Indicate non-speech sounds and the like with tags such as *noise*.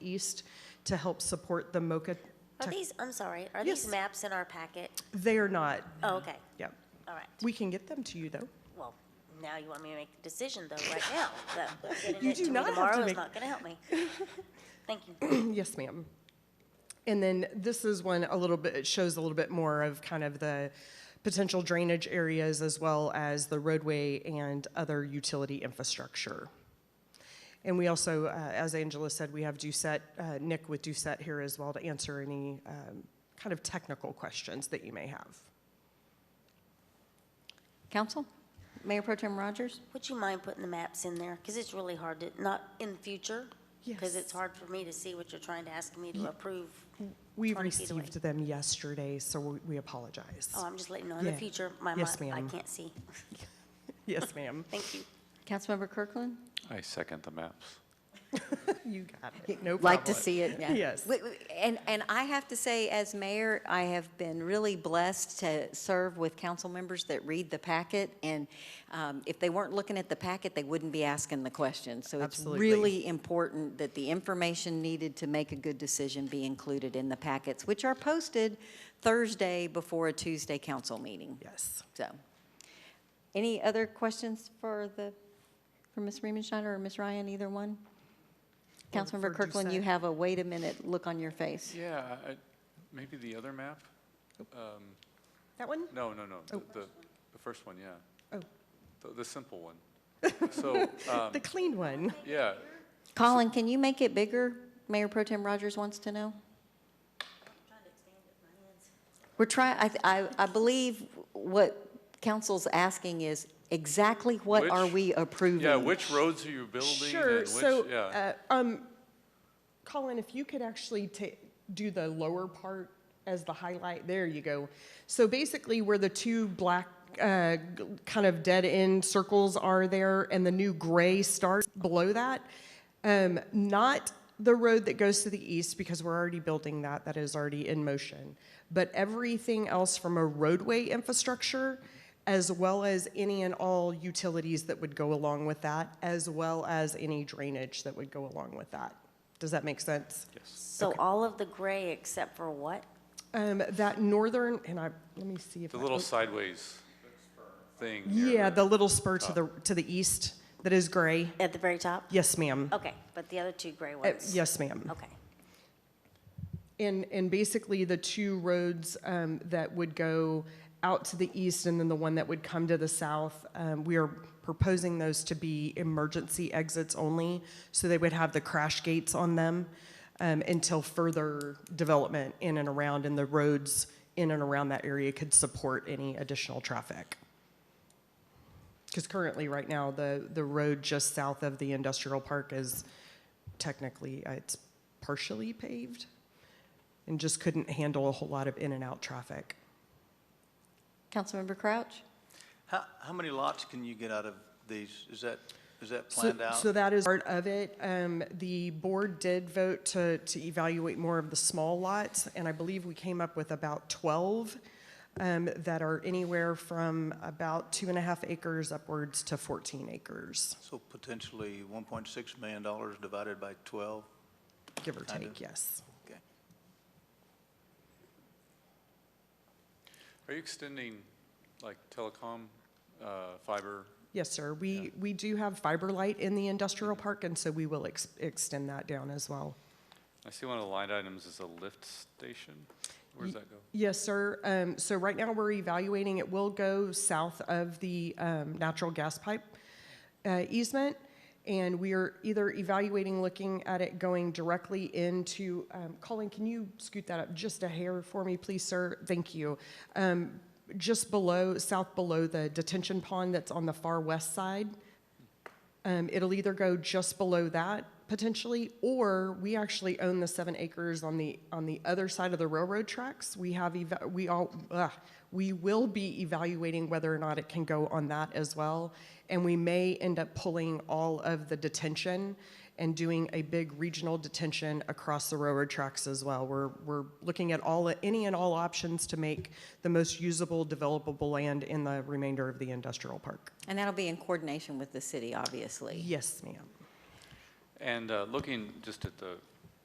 East to help support the MOCA. Are tech- these, I'm sorry, are these Yes. Mm-hmm. maps in our packet? They are not, Oh, okay, yeah. all right. We can get them to you, though. *clears throat* Well, now you want me to make the decision though, right *laughs* now. though. Getting You it do to me not have to tomorrow is make- not going to *laughs* help me. Thank you. Yes, ma'am. And then this is one a little bit, it shows a little bit more of kind of the potential drainage areas as well as the roadway and other utility infrastructure. And we also, uh, as Angela said, we have Doucette, uh, Nick with Doucette here as well to answer any um, kind of technical questions that you may have. Council? Mayor Pro Tem Rogers? Would you mind putting the maps in there? Because it's really hard to, not in future, because Yes. mm, it's hard for me to see what you're trying to ask me to approve. We 20 feet away. received them yesterday, so we- we apologize. Oh, I'm just letting you know, in the Yeah. future, my mind, Yes, I ma'am. can't see. Yes, ma'am. Thank you. Councilmember Kirkland? I second the maps. You got it. No problem. Like to see it, yeah. Yes. We- we- And, and I have to say, as mayor, I have been really blessed to serve with council members that read the packet. And um, if they weren't looking at the packet, they wouldn't be asking the questions. So it's Absolutely. really important that the information needed to make a good decision be included in the packets, which are posted Thursday before a Tuesday council meeting. Yes. So, any other questions for the, for Ms. Riemenschneider or Ms. Ryan, either one? Or Councilmember for Kirkland, you Doucette. have a wait a minute look on your face. Yeah, I- I- maybe the other map? Um, That one? No, no, no, the- Oh. the, the first one, yeah. Oh. The, the simple one. So, um, *laughs* The clean one. yeah, Colin, can you make it bigger? Mayor Pro Tem Rogers wants to know. We're trying, I, I, I believe what council's asking is exactly what Which- are we approving? yeah, which roads are you building Sure. and so, which, yeah. uh, um, Colin, if you could actually ta do the lower part as the highlight, there you go. So basically, where the two black uh, g- kind of dead end circles are there, and the new gray starts below that, um, not the road that goes to the east because we're already building that that is already in motion but everything else from a roadway infrastructure as well as any and all utilities that would go along with that, as well as any drainage that would go along with that. Does that make sense? So all of the gray except for what? Um, that northern, and I, let me see if The I- little sideways thing. near Yeah, the little spur Oh. to the, to the east that is gray. At the very top? Yes, ma'am. Okay, but the other two gray Uh, ones? Yes, ma'am. Okay. And, and basically, the two roads um, that would go out to the east and then the one that would come to the south, um, we are proposing those to be emergency exits only, so they would have the crash gates on them um, until further development in and around, and the roads in and around that area could support any additional traffic. Because currently, right now, the, the road just south of the industrial park is technically, uh, it's partially paved and just couldn't handle a whole lot of in and out traffic. Councilmember Crouch? How, how many lots can you get out of these? Is that, is that planned so, out? so that is part of it. Um, the board did vote to, to evaluate more of the small lots, and I believe we came up with about 12 um, that are anywhere from about two and a half acres upwards to 14 acres, So potentially $1.6 million divided by 12? give or Kind of. take, yes. Okay. Are you extending, like, telecom, uh, fiber? Yes, sir. We, we do have fiber light in the industrial park, and so we will ex- extend that down as well. I see one of the line items is a lift station. Where does that go? Yes, sir. Um, so right now we're evaluating, it will go south of the, um, natural gas pipe, uh, easement. And we are either evaluating, looking at it going directly into, um, Colin, can you scoot that up just a hair for me, please, sir? Thank you. Um, just below, south below the detention pond that's on the far west side. Um, it'll either go just below that potentially, or we actually own the seven acres on the, on the other side of the railroad tracks. We have, eva- we all, ugh, we will be evaluating whether or not it can go on that as well. And we may end up pulling all of the detention and doing a big regional detention across the railroad tracks as well. We're, we're looking at all, any and all options to make the most usable, developable land in the remainder of the industrial park. And that'll be in coordination with the city, obviously. Yes, ma'am. And uh, looking just at the